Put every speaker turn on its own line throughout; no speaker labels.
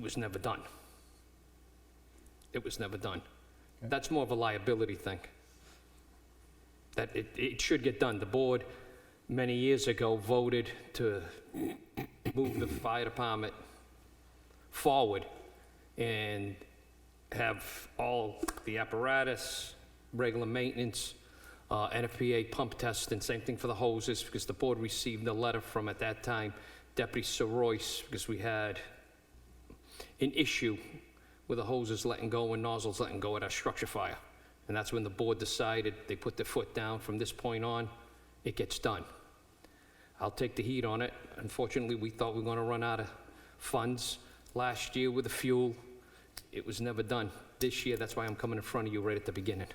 was never done. It was never done. That's more of a liability thing. That it, it should get done. The board, many years ago, voted to move the fire department forward and have all the apparatus, regular maintenance, uh, NFPA pump test, and same thing for the hoses, because the board received a letter from, at that time, Deputy Sir Royce, because we had an issue with the hoses letting go and nozzles letting go at our structure fire. And that's when the board decided, they put their foot down, from this point on, it gets done. I'll take the heat on it. Unfortunately, we thought we were going to run out of funds last year with the fuel. It was never done. This year, that's why I'm coming in front of you right at the beginning.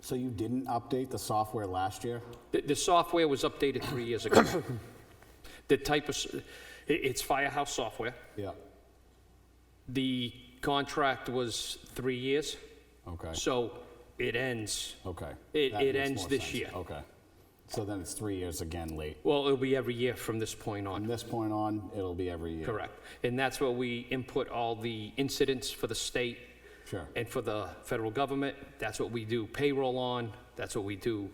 So you didn't update the software last year?
The, the software was updated three years ago. The type of, s- i- it's firehouse software.
Yeah.
The contract was three years,
Okay,
so it ends.
okay.
It-
That
it
makes
ends
more
this
sense.
year.
Okay. So then it's three years again late.
Well, it'll be every year from this point on.
From this point on, it'll be every year.
Correct. And that's where we input all the incidents for the state.
Sure.
And for the federal government. That's what we do payroll on. That's what we do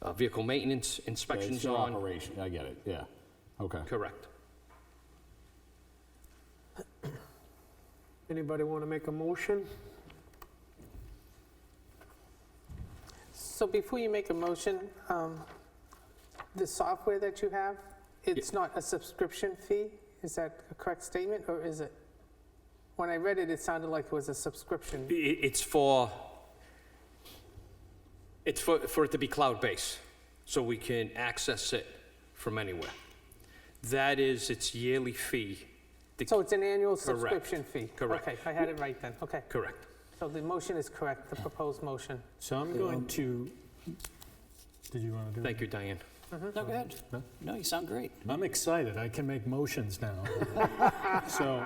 uh, vehicle maintenance
Okay, It's
inspections
your
on.
operation, I get it, yeah. Okay.
Correct.
Anybody want to make a motion?
So before you make a motion, um, the software that you have, it's not a subscription fee? Is that a correct statement, or is it? When I read it, it sounded like it was a subscription.
I- i- It's for, it's for, for it to be cloud-based, so we can access it from anywhere. That is its yearly fee. The-
So it's an annual
Correct.
subscription fee?
Correct.
Okay, I had it right then, okay.
Correct.
So the motion is correct, the proposed motion.
So I'm going to, did you want to do it?
Thank you, Diane.
No, go ahead. No, you sound great.
I'm excited, I can make motions now. So,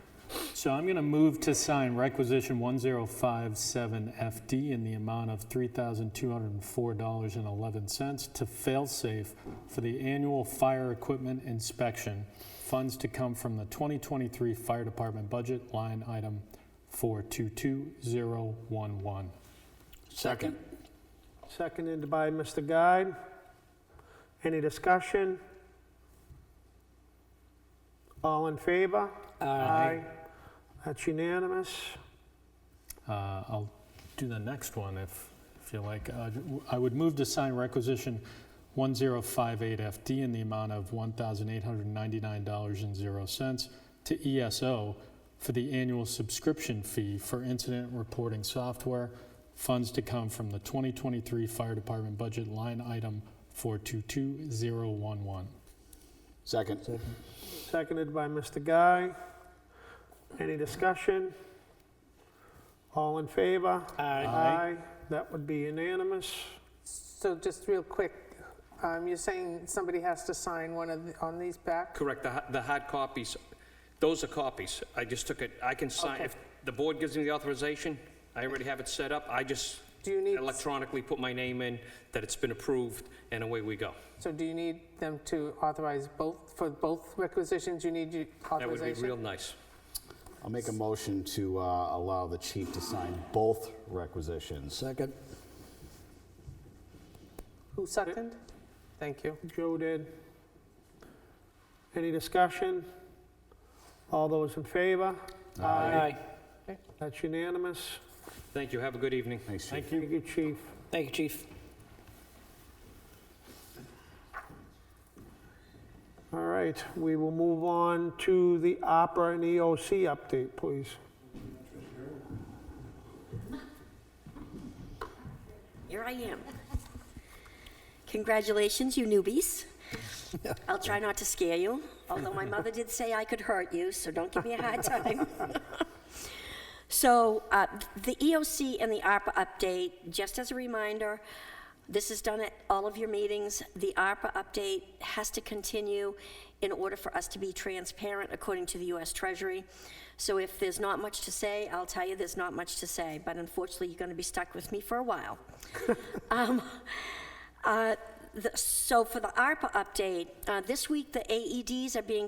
so I'm going to move to sign requisition 1057FD in the amount of $3,204.11 to Failsafe for the annual fire equipment inspection. Funds to come from the 2023 Fire Department budget, line item 422011.
Second.
Seconded by Mr. Guide. Any discussion? All in favor? That's unanimous.
Uh, I'll do the next one if, if you like. Uh, I would move to sign requisition 1058FD in the amount of $1,899.00 to ESO for the annual subscription fee for incident reporting software. Funds to come from the 2023 Fire Department budget line item 422011.
Second.
Seconded by Mr. Guy. Any discussion? All in favor? Aye. That would be unanimous.
So just real quick, um, you're saying somebody has to sign one of, the- on these back?
Correct, the, ha- the hard copies, those are copies. I just took it, I can sign,
Okay.
if the board gives me the authorization, I already have it set up. I just
Do you need,
electronically put my name in, that it's been approved, and away we go.
so do you need them to authorize both, for both requisitions, you need your
That would be
authorization?
real nice.
I'll make a motion to uh, allow the chief to sign both requisitions.
Second.
Who second? Thank you.
Joe did. Any discussion? All those in favor?
Aye.
That's unanimous.
Thank you, have a good evening.
Thanks, chief.
Thank you. Thank you, chief.
Thank you, chief.
All right, we will move on to the Opera and EOC update, please.
Here I am. Congratulations, you newbies. I'll try not to scare you, although my mother did say I could hurt you, so don't give me a hard time. So uh, the EOC and the ARPA update, just as a reminder, this is done at all of your meetings. The ARPA update has to continue in order for us to be transparent according to the US Treasury. So if there's not much to say, I'll tell you there's not much to say, but unfortunately, you're going to be stuck with me for a while. Um, uh, the- So for the ARPA update, uh, this week, the AEDs are being